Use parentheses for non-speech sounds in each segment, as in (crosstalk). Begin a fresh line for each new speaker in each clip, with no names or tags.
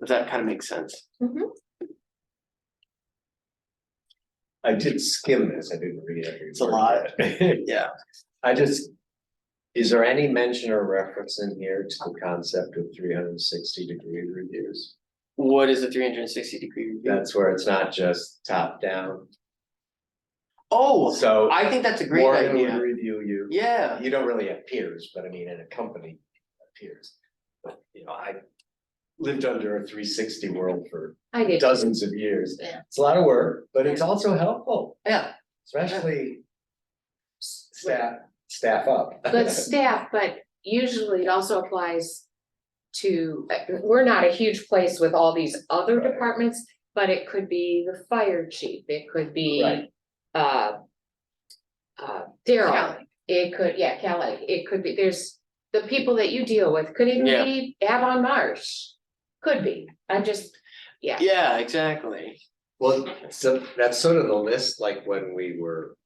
Does that kind of make sense?
I did skim this, I didn't read every.
It's a
word
lot.
yet. (laughs)
Yeah.
I just, is there any mention or reference in here to the concept of three hundred and sixty degree reviews?
What is a three hundred and sixty degree review?
That's where it's not just top down,
Oh,
so.
I think that's a great
Warren would
idea.
review you.
Yeah,
You don't really have peers, but I mean, in a company, peers. But, you know, I lived under a three sixty world for
I did.
dozens of years.
Yeah.
It's a lot of work, but it's
Yeah.
also helpful,
yeah,
especially s- staff, staff up. (laughs)
But staff, but usually it also applies to, we're not a huge place with all these other
Right.
departments, but it could be the fire chief, it could be,
Right.
uh, uh, Daryl, it could, yeah, Kelly, it could be, there's the people that you deal with, could even
Yeah.
be Avon Marsh, could be, I'm just, yeah.
yeah, exactly.
Well, so that's sort of the list, like when we were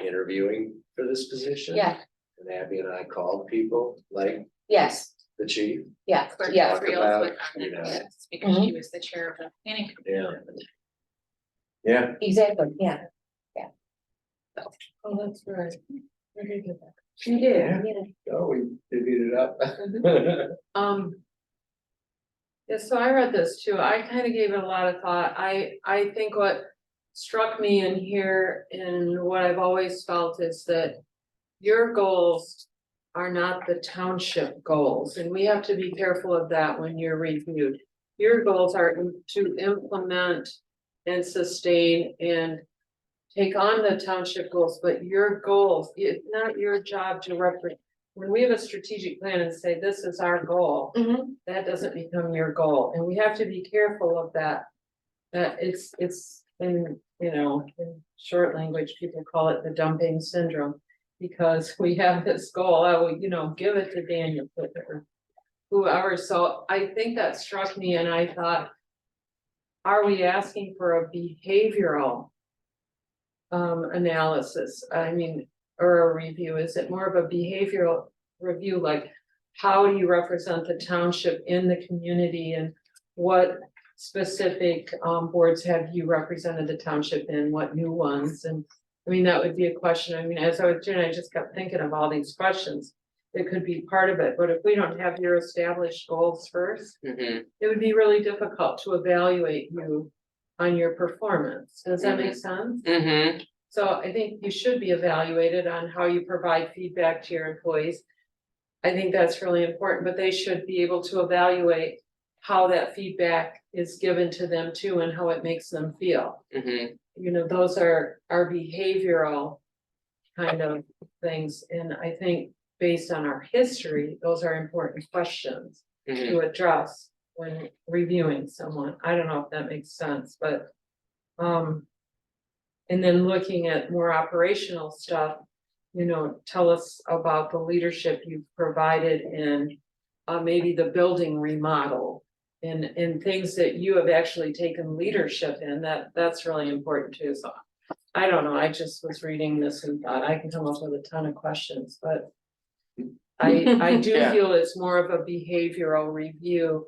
interviewing for this position.
Yeah,
And Abby and I called people, like
yes,
the chief,
yeah,
Clerk
yeah. Mm-hmm.
talk
Gabriel was
about,
on
you
that
know.
list because she was the chair of the planning. committee.
yeah. Yeah,
Exactly, yeah, yeah. Oh, that's right. You did,
Yeah.
yeah.
oh, we divvied it up. (laughs)
Um. Yeah, so I read this too. I kind of gave it a lot of thought. I, I think what struck me in here and what I've always felt is that. Your goals are not the township goals, and we have to be careful of that when you're reviewed. Your goals are to implement and sustain and. Take on the township goals, but your goals, it's not your job to represent. When we have a strategic plan and say this is our goal
Mhm.
that doesn't become your goal, and we have to be careful of that. That it's, it's, in you know, in short language, people call it the dumping syndrome. Because (laughs) we have this goal, I will, you know, give it to Daniel, put it or whoever, so I think that struck me and I thought. Are we asking for a behavioral? Um, analysis, I mean, or a review, is it more of a behavioral review, like? how do you represent the township in the community and what specific um boards have you represented the township in, what new ones and I mean, that would be a question. I mean, as I was doing, I just kept thinking of all these questions that could be part of it, but if we don't have your established goals first,
Mhm.
it would be really difficult to evaluate you on your performance. Does that make sense?
Mhm.
So I think you should be evaluated on how you provide feedback to your employees. I think that's really important, but they should be able to evaluate how that feedback is given to them too and how it makes them feel.
Mhm.
You know, those are our behavioral kind of things, and I think based on our history, those are important questions
Mhm.
to address when reviewing someone. I don't know if that makes sense, but um and then looking at more operational stuff, you know, tell us about the leadership you've provided in uh maybe the building remodel and and things that you have actually taken leadership in, that that's really important too, so I don't know, I just was reading this and thought I can come up with a ton of questions, but I I do
Yeah.
feel it's more of a behavioral review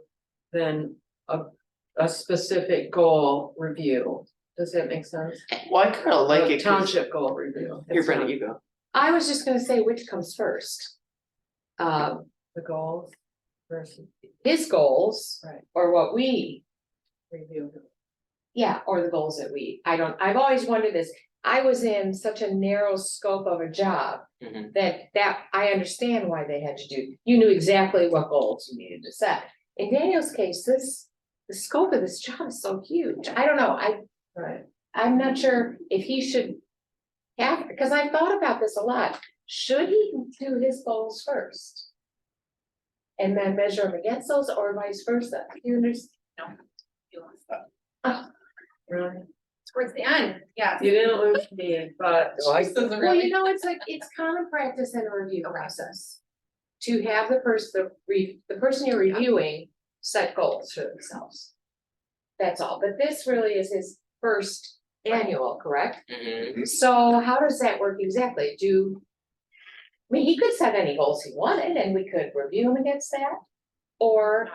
than a a specific goal review. Does that make sense?
Well, um, I kind of like
A
it. 'cause-
Township goal review.
Here,
It's
Brendan,
not
you go.
I was just gonna say which comes first. Um,
The goals versus
his goals
Right.
or what we,
review.
yeah, or the goals that we, I don't, I've always wondered this. I was in such a narrow scope of a job
Mhm.
that that I understand why they had to do, you knew exactly what goals you needed to set. In Daniel's case, this, the scope of this job is so huge. I don't know, I
Right,
I'm not sure if he should have, because I thought about this a lot, should he do his goals first? And then measure them against those or vice versa, you understand?
really.
Towards the end, yeah.
You didn't lose me, but.
No, I-
This is
Well,
really-
you know, it's like, it's common practice in a review process. To have the person, the re, the person you're reviewing set goals for themselves. That's all, but this really is his first annual, correct?
Mhm.
So how does that work exactly? Do? I mean, he could set any goals he wanted and we could review him against that. Or